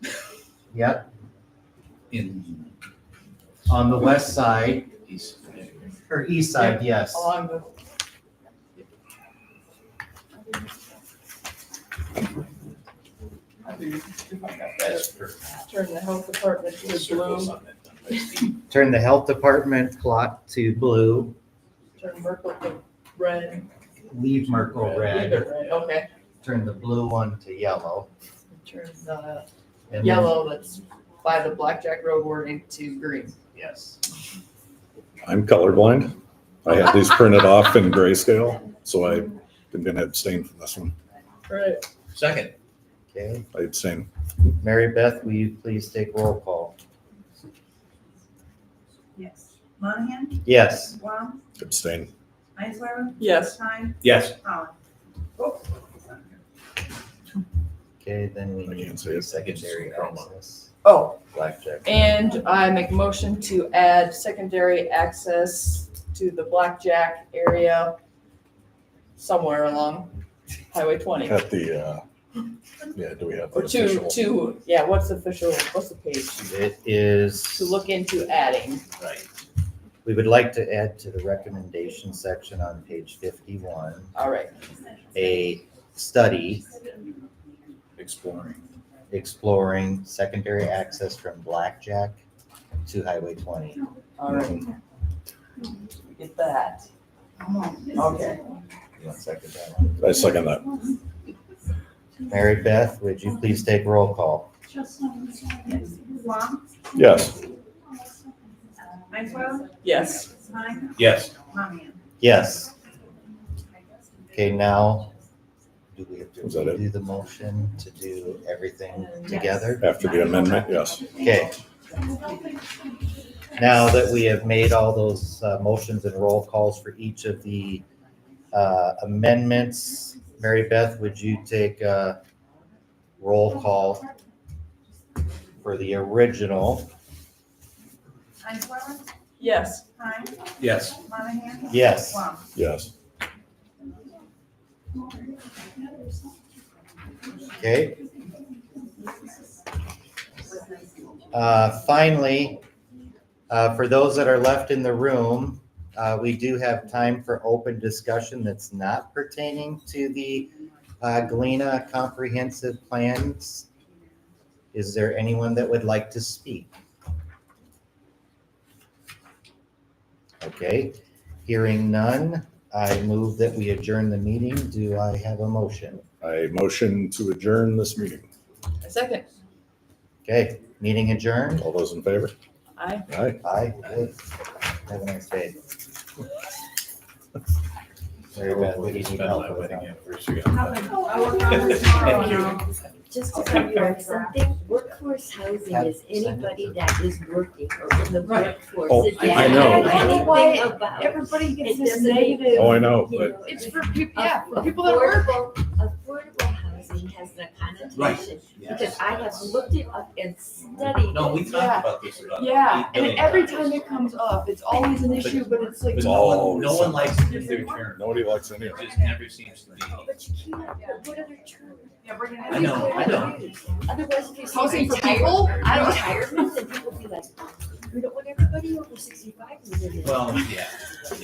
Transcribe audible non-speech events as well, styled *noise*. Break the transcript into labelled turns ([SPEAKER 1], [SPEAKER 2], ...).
[SPEAKER 1] Yep,
[SPEAKER 2] in.
[SPEAKER 1] on the west side,
[SPEAKER 2] east.
[SPEAKER 1] or east side, yes.
[SPEAKER 3] along the,
[SPEAKER 2] That's for-
[SPEAKER 3] turn the health department to
[SPEAKER 2] circles
[SPEAKER 3] blue,
[SPEAKER 2] on that.
[SPEAKER 1] Turn the health department plot to blue,
[SPEAKER 3] turn Merkle to red.
[SPEAKER 1] leave Merkle red,
[SPEAKER 3] Either red, Okay,
[SPEAKER 1] turn the blue one to yellow.
[SPEAKER 3] turn the
[SPEAKER 1] and then-
[SPEAKER 3] yellow that's by the Blackjack Road wording to green.
[SPEAKER 1] Yes.
[SPEAKER 4] I'm colorblind. I had these printed off in grayscale, so I am gonna abstain from this one.
[SPEAKER 3] Right.
[SPEAKER 2] Second,
[SPEAKER 1] Okay,
[SPEAKER 4] I abstain.
[SPEAKER 1] Mary Beth, will you please take roll call?
[SPEAKER 5] Yes. Monahan?
[SPEAKER 1] Yes,
[SPEAKER 5] Wong?
[SPEAKER 4] Abstain.
[SPEAKER 5] Isler?
[SPEAKER 3] Yes.
[SPEAKER 5] Stein?
[SPEAKER 2] yes,
[SPEAKER 5] Holland? Oh,
[SPEAKER 1] okay, then we
[SPEAKER 4] I
[SPEAKER 1] need
[SPEAKER 4] can't say
[SPEAKER 1] three
[SPEAKER 4] it.
[SPEAKER 1] secondary
[SPEAKER 2] Chroma.
[SPEAKER 1] access,
[SPEAKER 3] Oh,
[SPEAKER 1] blackjack.
[SPEAKER 3] and I make a motion to add secondary access to the Blackjack area somewhere along Highway twenty.
[SPEAKER 4] At the, uh, yeah, do we have the
[SPEAKER 3] Or to,
[SPEAKER 4] official?
[SPEAKER 3] to, yeah, what's official, what's the page?
[SPEAKER 1] It is.
[SPEAKER 3] To look into adding.
[SPEAKER 2] right.
[SPEAKER 1] We would like to add to the recommendation section on page fifty-one,
[SPEAKER 3] All right,
[SPEAKER 1] a study
[SPEAKER 2] Exploring.
[SPEAKER 1] exploring secondary access from Blackjack to Highway twenty.
[SPEAKER 3] all right. Get that. Okay.
[SPEAKER 1] One second, that one.
[SPEAKER 4] I second that.
[SPEAKER 1] Mary Beth, would you please take roll call?
[SPEAKER 5] Wong?
[SPEAKER 4] Yes,
[SPEAKER 5] Isler?
[SPEAKER 3] Yes.
[SPEAKER 5] Stein?
[SPEAKER 2] Yes,
[SPEAKER 5] Monahan?
[SPEAKER 1] Yes. Okay, now, do we have
[SPEAKER 4] Is that
[SPEAKER 1] to
[SPEAKER 4] it?
[SPEAKER 1] do the motion to do everything together?
[SPEAKER 4] after the amendment, yes.
[SPEAKER 1] Okay. Now that we have made all those uh, motions and roll calls for each of the uh, amendments, Mary Beth, would you take a roll call for the original?
[SPEAKER 5] Isler?
[SPEAKER 3] Yes.
[SPEAKER 5] Stein?
[SPEAKER 2] yes,
[SPEAKER 5] Monahan?
[SPEAKER 1] Yes.
[SPEAKER 5] Wong?
[SPEAKER 4] Yes,
[SPEAKER 1] Okay. Uh, Finally, uh, for those that are left in the room, uh, we do have time for open discussion that's not pertaining to the uh, Galena Comprehensive Plans. Is there anyone that would like to speak? Okay, hearing none, I move that we adjourn the meeting. Do I have a motion?
[SPEAKER 4] I motion to adjourn this meeting.
[SPEAKER 3] A second.
[SPEAKER 1] Okay, meeting adjourned.
[SPEAKER 4] All those in favor?
[SPEAKER 3] Aye.
[SPEAKER 4] Aye.
[SPEAKER 1] Aye. Good. Have a nice day. Very bad. What do you need help with?
[SPEAKER 5] I'll work
[SPEAKER 2] *laughs*
[SPEAKER 5] on this tomorrow and I'll-
[SPEAKER 6] Just to tell you on something, workforce housing is anybody that is working or in the
[SPEAKER 4] Oh,
[SPEAKER 6] workforce. It
[SPEAKER 4] I
[SPEAKER 6] doesn't
[SPEAKER 4] know.
[SPEAKER 6] matter
[SPEAKER 4] I
[SPEAKER 3] know
[SPEAKER 6] anything
[SPEAKER 3] why
[SPEAKER 6] about-
[SPEAKER 5] Everybody
[SPEAKER 6] It
[SPEAKER 5] gets this
[SPEAKER 6] doesn't
[SPEAKER 5] negative.
[SPEAKER 6] matter,
[SPEAKER 4] Oh, I know,
[SPEAKER 6] you
[SPEAKER 4] but
[SPEAKER 6] know,
[SPEAKER 3] It's for people, yeah, for people that work.
[SPEAKER 6] affordable, affordable housing has that connotation. Because I have looked it up and studied.
[SPEAKER 2] No, we
[SPEAKER 6] it.
[SPEAKER 2] talked about this. about
[SPEAKER 3] Yeah,
[SPEAKER 2] eight
[SPEAKER 3] and
[SPEAKER 2] billion
[SPEAKER 3] every
[SPEAKER 2] dollars.
[SPEAKER 3] time it comes up, it's always an issue, but it's like,
[SPEAKER 2] But
[SPEAKER 4] It's
[SPEAKER 2] no one,
[SPEAKER 4] always
[SPEAKER 2] no one
[SPEAKER 4] something.
[SPEAKER 2] likes to use their term.
[SPEAKER 4] nobody likes any
[SPEAKER 2] It
[SPEAKER 4] of it.
[SPEAKER 2] just never seems to be.
[SPEAKER 6] But you can't, but what other term?
[SPEAKER 5] Yeah, we're gonna.
[SPEAKER 2] I know, I know.
[SPEAKER 6] Otherwise, if you say
[SPEAKER 3] Housing for
[SPEAKER 6] retirement,
[SPEAKER 3] people? I don't-
[SPEAKER 6] "Oh, retirement, then people be like, we don't want everybody over sixty-five to live in.
[SPEAKER 2] Well, yeah.